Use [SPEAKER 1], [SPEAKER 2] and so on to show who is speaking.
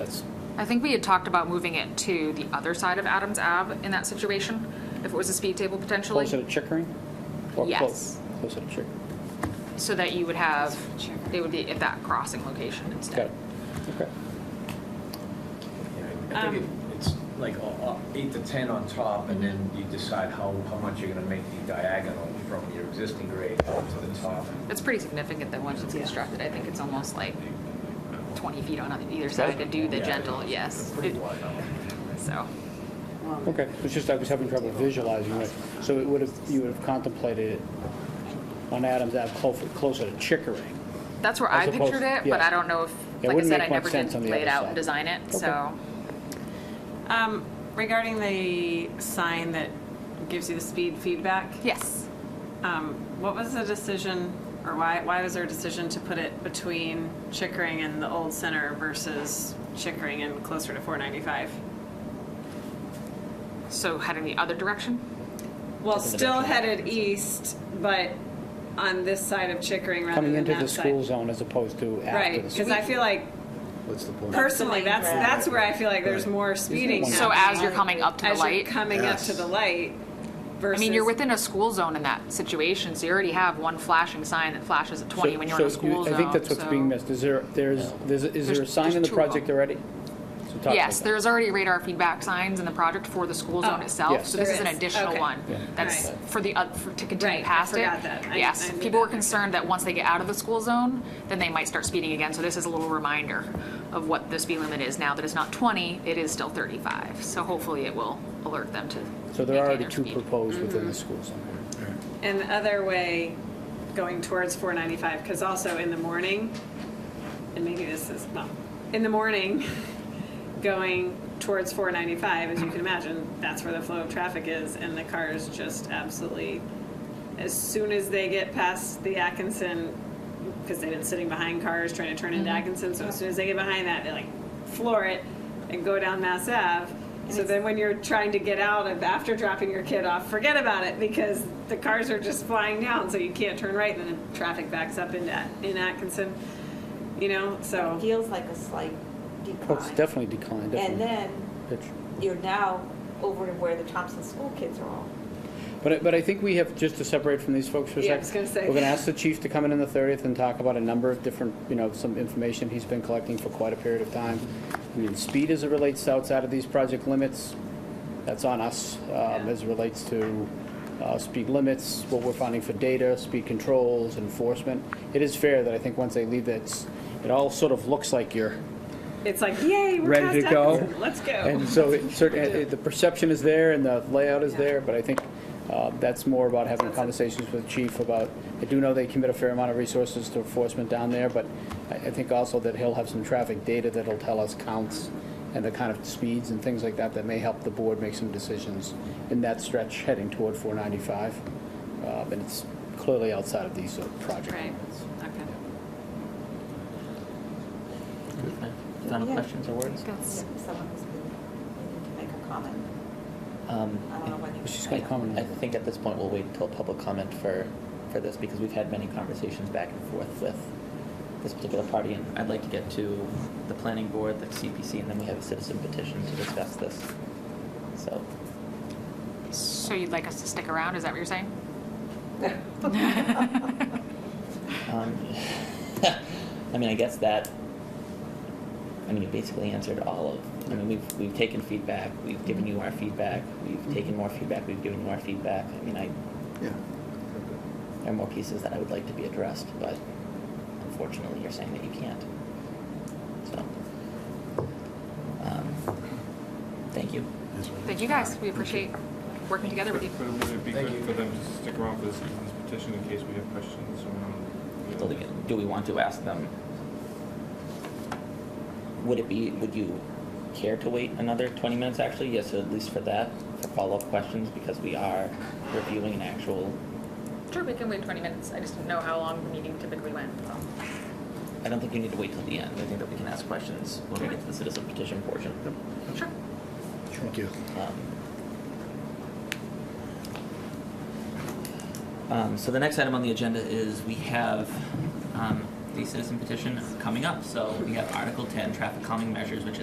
[SPEAKER 1] is.
[SPEAKER 2] I think we had talked about moving it to the other side of Adams Ave in that situation, if it was a speed table potentially.
[SPEAKER 1] Closer to Chickering? Or clo-
[SPEAKER 2] Yes.
[SPEAKER 1] Closer to Chickering.
[SPEAKER 2] So that you would have, they would be at that crossing location
[SPEAKER 1] Got
[SPEAKER 2] instead.
[SPEAKER 1] it. Okay.
[SPEAKER 3] I think it- it's like uh, uh, eight to 10 on top, and then you decide how, how much you're gonna make the diagonal from your existing grade up to the top.
[SPEAKER 2] It's pretty significant that once it's constructed, I think it's almost like 20 feet on either side to do the
[SPEAKER 3] Yeah.
[SPEAKER 2] gentle, yes.
[SPEAKER 3] Pretty wide.
[SPEAKER 2] So, Um,
[SPEAKER 1] Okay, it's just I was having trouble visualizing it. So it would have, you would have contemplated it on Adams Ave clo- closer to Chickering.
[SPEAKER 2] that's where
[SPEAKER 1] As
[SPEAKER 2] I
[SPEAKER 1] opposed-
[SPEAKER 2] pictured it, but
[SPEAKER 1] yeah.
[SPEAKER 2] I don't know if,
[SPEAKER 1] It
[SPEAKER 2] like I
[SPEAKER 1] wouldn't
[SPEAKER 2] said,
[SPEAKER 1] make
[SPEAKER 2] I never
[SPEAKER 1] much sense
[SPEAKER 2] did
[SPEAKER 1] on the
[SPEAKER 2] lay it
[SPEAKER 1] other
[SPEAKER 2] out
[SPEAKER 1] side.
[SPEAKER 2] and design it,
[SPEAKER 1] Okay.
[SPEAKER 2] so.
[SPEAKER 4] Um, regarding the sign that gives you the speed feedback,
[SPEAKER 2] Yes.
[SPEAKER 4] um, what was the decision, or why, why was there a decision to put it between Chickering and the old center versus Chickering and closer to four ninety-five?
[SPEAKER 2] So heading the other direction?
[SPEAKER 4] Well,
[SPEAKER 1] Different
[SPEAKER 4] still
[SPEAKER 1] direction.
[SPEAKER 4] headed east, but on this side of Chickering rather
[SPEAKER 1] Coming
[SPEAKER 4] than
[SPEAKER 1] into
[SPEAKER 4] that
[SPEAKER 1] the school
[SPEAKER 4] side.
[SPEAKER 1] zone as opposed to after
[SPEAKER 4] Right,
[SPEAKER 1] the
[SPEAKER 4] because
[SPEAKER 1] school.
[SPEAKER 4] I feel like,
[SPEAKER 5] What's the point?
[SPEAKER 4] personally, that's, that's where I feel like there's more speeding
[SPEAKER 1] one-
[SPEAKER 2] So
[SPEAKER 4] happening
[SPEAKER 2] as you're coming up to the
[SPEAKER 4] as you're
[SPEAKER 2] light?
[SPEAKER 4] coming up
[SPEAKER 5] Yes.
[SPEAKER 4] to the light
[SPEAKER 2] I
[SPEAKER 4] versus.
[SPEAKER 2] mean, you're within a school zone in that situation, so you already have one flashing sign that flashes at 20
[SPEAKER 1] So-
[SPEAKER 2] when you're in a
[SPEAKER 1] so
[SPEAKER 2] school zone.
[SPEAKER 1] I think that's what's being
[SPEAKER 2] so-
[SPEAKER 1] missed. Is there, there's, there's- is there a
[SPEAKER 2] There's-
[SPEAKER 1] sign in
[SPEAKER 2] there's
[SPEAKER 1] the
[SPEAKER 2] two of
[SPEAKER 1] project
[SPEAKER 2] them.
[SPEAKER 1] already? So talk about
[SPEAKER 2] Yes,
[SPEAKER 1] that.
[SPEAKER 2] there's already radar feedback signs in the project for the school zone
[SPEAKER 4] Oh,
[SPEAKER 2] itself,
[SPEAKER 1] Yes.
[SPEAKER 2] so this
[SPEAKER 4] there
[SPEAKER 2] is an
[SPEAKER 4] is.
[SPEAKER 2] additional
[SPEAKER 4] Okay.
[SPEAKER 2] one.
[SPEAKER 1] Yeah.
[SPEAKER 2] That's
[SPEAKER 4] Right.
[SPEAKER 2] for the, oth- for- to continue
[SPEAKER 4] Right, I
[SPEAKER 2] past it.
[SPEAKER 4] forgot that. I-
[SPEAKER 2] Yes,
[SPEAKER 4] I knew
[SPEAKER 2] people were
[SPEAKER 4] that.
[SPEAKER 2] concerned that once they get out of the school zone, then they might start speeding again, so this is a little reminder of what the speed limit is now, that it's not 20, it is still 35. So hopefully it will alert them to
[SPEAKER 1] So there are
[SPEAKER 2] maintain
[SPEAKER 1] already
[SPEAKER 2] their
[SPEAKER 1] two
[SPEAKER 2] speed. Mm-hmm.
[SPEAKER 1] proposed within the school zone.
[SPEAKER 4] And the other way, going towards 495, because also in the morning, and maybe this is, well, in the morning, going towards 495, as you can imagine, that's where the flow of traffic is, and the cars just absolutely, as soon as they get past the Atkinson, because they've been sitting behind cars trying to turn into Atkinson, so as soon as they get behind that, they like floor it and go down Mass Ave. So then when you're trying to get out of, after dropping your kid off, forget about it, because the cars are just flying down, so you can't turn right, and then the traffic backs up into, in Atkinson, you know, so.
[SPEAKER 6] feels like a slight
[SPEAKER 1] Oh, it's
[SPEAKER 6] decline.
[SPEAKER 1] definitely declined,
[SPEAKER 6] And
[SPEAKER 1] definitely.
[SPEAKER 6] then
[SPEAKER 1] Picture.
[SPEAKER 6] you're now over to where the Thompson School kids are all.
[SPEAKER 1] But, I- but I think we have, just to separate from these folks for a 2nd
[SPEAKER 4] Yeah, I was gonna say.
[SPEAKER 1] We're gonna ask the chief to come in on the 30th and talk about a number of different, you know, some information he's been collecting for quite a period of time. I mean, speed as it relates to outside of these project limits, that's on us, um, as it relates to, uh, speed limits, what we're finding for data, speed controls, enforcement. It is fair that I think once they leave, that's, it all sort of looks like you're,
[SPEAKER 4] It's like, yay, we're
[SPEAKER 1] Ready
[SPEAKER 4] past
[SPEAKER 1] to go?
[SPEAKER 4] Atkinson. Let's go.
[SPEAKER 1] And so it certainly, the perception is there and the layout is there, but I think uh, that's more about having conversations with chief about, I do know they commit a fair amount of resources to enforcement down there, but I, I think also that he'll have some traffic data that'll tell us counts and the kind of speeds and things like that that may help the board make some decisions in that stretch heading toward 495. Um, And it's clearly outside of these uh, project
[SPEAKER 4] Right.
[SPEAKER 1] limits.
[SPEAKER 4] Okay.
[SPEAKER 7] Final
[SPEAKER 6] Yeah.
[SPEAKER 7] questions or words?
[SPEAKER 2] That's-
[SPEAKER 6] If Someone has been needing to make a comment.
[SPEAKER 7] Um,
[SPEAKER 6] I don't know when you.
[SPEAKER 1] She's gonna comment on
[SPEAKER 7] I
[SPEAKER 1] that.
[SPEAKER 7] think at this point, we'll wait until public comment for, for this, because we've had many conversations back and forth with this particular party, and I'd like to get to the planning board, the CPC, and then we have a citizen petition to discuss this. So,
[SPEAKER 2] So you'd like us to stick around, is that what you're saying?
[SPEAKER 7] um, I mean, I guess that, I mean, you basically answered all of, I mean, we've, we've taken feedback, we've given you our feedback, we've taken more feedback, we've given you our feedback. I mean, I,
[SPEAKER 5] Yeah.
[SPEAKER 7] There are more pieces that I would like to be addressed, but unfortunately, you're saying that you can't. So, um, thank you.
[SPEAKER 2] Thank you guys, we appreciate working together with you.
[SPEAKER 8] But would it be
[SPEAKER 3] Thank
[SPEAKER 8] good
[SPEAKER 3] you.
[SPEAKER 8] for them to stick around for the citizens petition in case we have questions around?
[SPEAKER 7] So, Do we want to ask them? Would it be, would you care to wait another twenty minutes, actually? Yes, at least for that, for follow-up questions, because we are reviewing an actual,
[SPEAKER 2] Sure, we can wait 20 minutes, I just didn't know how long the meeting typically went, so.
[SPEAKER 7] I don't think you need to wait till the end. I think that we can ask questions when we get to the citizen petition portion.
[SPEAKER 2] Sure.
[SPEAKER 5] Thank you.
[SPEAKER 7] Um, Um, so the next item on the agenda is we have um, the citizen petition coming up. So we have Article 10, traffic calming measures, which is